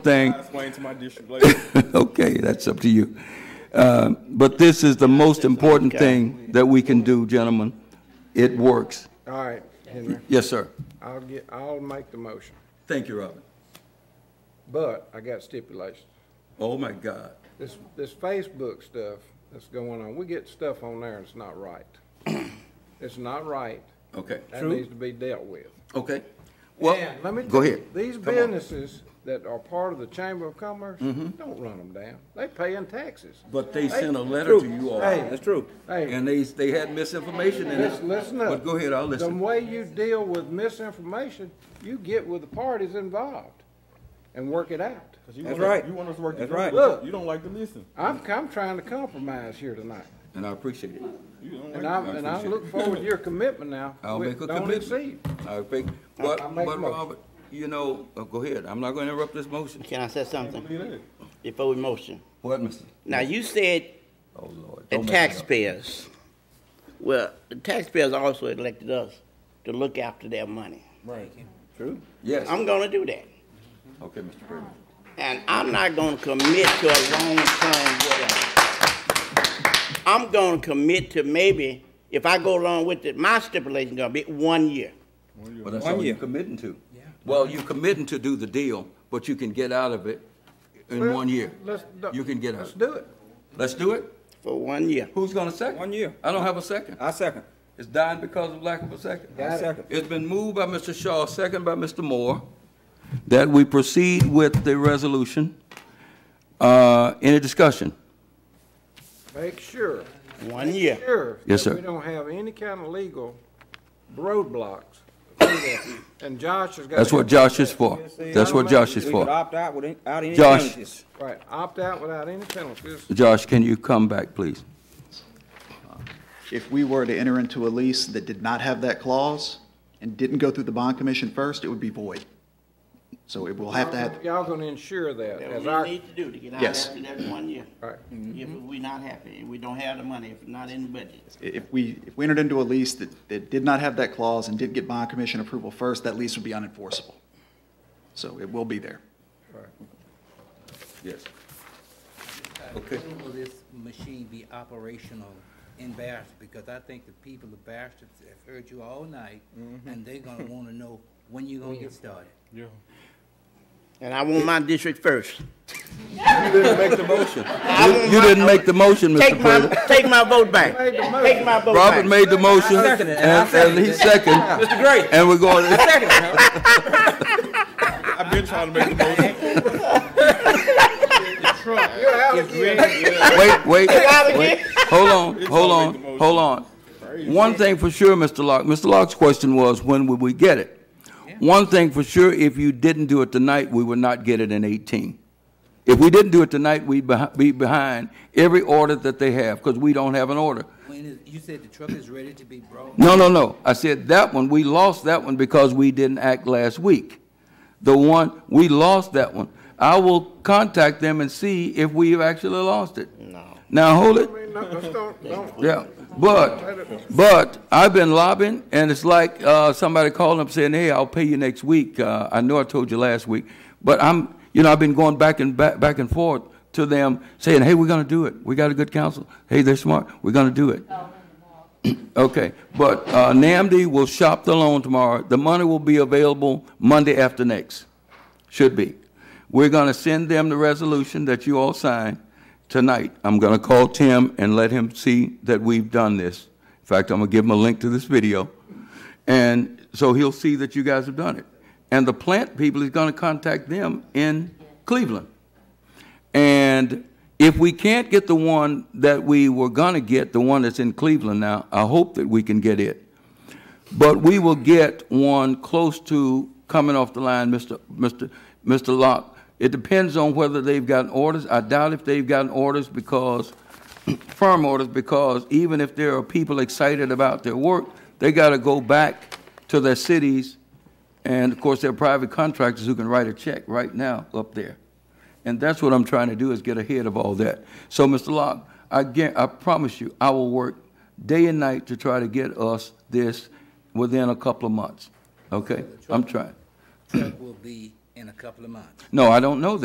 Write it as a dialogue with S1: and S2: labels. S1: thing.
S2: I explain to my district later.
S1: Okay, that's up to you. Uh, But this is the most important thing that we can do, gentlemen. It works.
S3: All right, Henry,
S1: Yes, sir.
S3: I'll get, I'll make the motion,
S1: Thank you, Robin.
S3: but I got stipulations.
S1: Oh, my God.
S3: This, this Facebook stuff that's going on, we get stuff on there and it's not right. It's not right.
S1: Okay.
S3: That needs to be dealt with.
S1: Okay. Well,
S3: And let me
S1: go
S3: tell you,
S1: ahead.
S3: These
S1: Come on. Mm-hmm.
S3: businesses that are part of the Chamber of Commerce, don't run them down. They paying taxes.
S1: But they sent a letter to you all,
S3: Hey,
S4: That's true.
S3: Hey,
S1: and they, they had misinformation in
S3: lis-
S1: it.
S3: listen up.
S1: But go ahead, I'll listen.
S3: The way you deal with misinformation, you get with the parties involved and work it out.
S2: 'Cause you
S4: That's
S2: want us-
S4: right.
S2: You want us to work.
S4: That's
S2: together,
S4: right.
S2: but
S3: Look.
S2: You don't like to listen.
S3: I'm, I'm trying to compromise here tonight.
S1: And I appreciate it.
S2: You don't like
S3: And
S2: to-
S3: I, and I look forward to your commitment now.
S1: I'll
S3: We-
S1: make a
S3: Don't
S1: commitment.
S3: exceed.
S1: I think, but,
S3: I'll make a
S1: but
S3: motion.
S1: Robert, you know, uh, go ahead. I'm not going to interrupt this motion.
S5: Can I say something
S2: believe that.
S5: before we motion?
S1: What, Mr.?
S5: Now, you said
S1: Oh, Lord.
S5: the
S1: don't mess it up.
S5: taxpayers, well, the taxpayers also elected us to look after their money.
S1: Yes.
S5: I'm gonna do that.
S1: Okay, Mr. President.
S5: And I'm not gonna commit to a long-term whatever. I'm gonna commit to maybe, if I go along with it, my stipulation gonna be one year.
S1: Well, that's
S4: One
S1: all you're
S4: year.
S1: committing to. Well, you're committing to do the deal, but you can get out of it in
S3: Well,
S1: one year.
S3: let's-
S1: You can get
S3: Let's
S1: out.
S3: do it.
S1: Let's do it.
S5: For one year.
S1: Who's going to second?
S4: One year.
S1: I don't have a second.
S2: Uh,
S4: I second.
S1: It's dying because of lack of a second.
S4: I second.
S1: It's been moved by Mr. Shaw, second by Mr. Moore, that we proceed with the resolution. Uh, Any discussion?
S3: Make sure,
S5: One year.
S3: sure.
S1: Yes,
S3: that
S1: sir.
S3: We don't have any kind of legal roadblocks. to that. And Josh has got.
S1: That's what Josh is for. That's what Josh is
S4: We could
S1: for.
S4: opt out without any
S1: Josh.
S4: penalties.
S3: Right, opt out without any penalties.
S1: Josh, can you come back, please?
S6: if we were to enter into a lease that did not have that clause and didn't go through the bond commission first, it would be void. So it will have to have,
S3: Y'all gonna ensure that
S5: That
S3: as
S5: what
S3: our,
S5: we need to do to get out
S6: Yes.
S5: after that one year.
S3: Right.
S5: If we not happy, if we don't have the money, if not in the budget.
S6: if we, if we entered into a lease that, that did not have that clause and did get bond commission approval first, that lease would be unenforceable. So it will be there.
S1: Yes. Okay.
S7: When will this machine be operational in Barrington? Because I think the people of Barrington have heard you all night, and they're gonna wanna know when you gonna get started.
S5: And I want my district first.
S1: You didn't make the motion.
S5: I want
S1: You
S5: my-
S1: didn't make the motion,
S5: Take
S1: Mr.
S5: my,
S1: President.
S5: take my vote back.
S3: Made the motion.
S5: Take my vote back.
S1: Robert made the motion,
S4: I seconded it, and I
S1: and, and he
S4: seconded
S1: seconded.
S4: Mr. Gray.
S1: And we're going,
S2: I've been trying to make the motion.
S1: wait, wait,
S5: out
S1: wait. Hold on, hold
S2: always the
S1: on,
S2: motion.
S1: hold on. One thing for sure, Mr. Locke, Mr. Locke's question was, when would we get it? One thing for sure, if you didn't do it tonight, we would not get it in eighteen. If we didn't do it tonight, we'd beh- be behind every order that they have, because we don't have an order.
S7: When is, you said the truck is ready to be brought.
S1: No, no, no. I said that one, we lost that one because we didn't act last week. The one, we lost that one. I will contact them and see if we've actually lost it. No. Now, hold it.
S3: I mean, no, let's don't, don't,
S1: Yeah, but, but I've been lobbying, and it's like, uh, somebody calling up saying, hey, I'll pay you next week. Uh, I know I told you last week, but I'm, you know, I've been going back and back, back and forth to them saying, hey, we're gonna do it. We got a good council. Hey, they're smart. We're gonna do it. Okay, but, uh, NAMD will shop the loan tomorrow. The money will be available Monday after next. Should be. We're gonna send them the resolution that you all signed tonight. I'm gonna call Tim and let him see that we've done this. In fact, I'm gonna give him a link to this video. And so he'll see that you guys have done it. And the plant people is gonna contact them in Cleveland. And if we can't get the one that we were gonna get, the one that's in Cleveland now, I hope that we can get it. But we will get one close to coming off the line, Mr. Mr. Mr. Locke. It depends on whether they've gotten orders. I doubt if they've gotten orders because, firm orders, because even if there are people excited about their work, they gotta go back to their cities. And of course, there are private contractors who can write a check right now up there. And that's what I'm trying to do, is get ahead of all that. So, Mr. Locke, I guar- I promise you, I will work day and night to try to get us this within a couple of months, okay? I'm trying.
S7: Truck will be in a couple of months.
S1: No, I don't know that.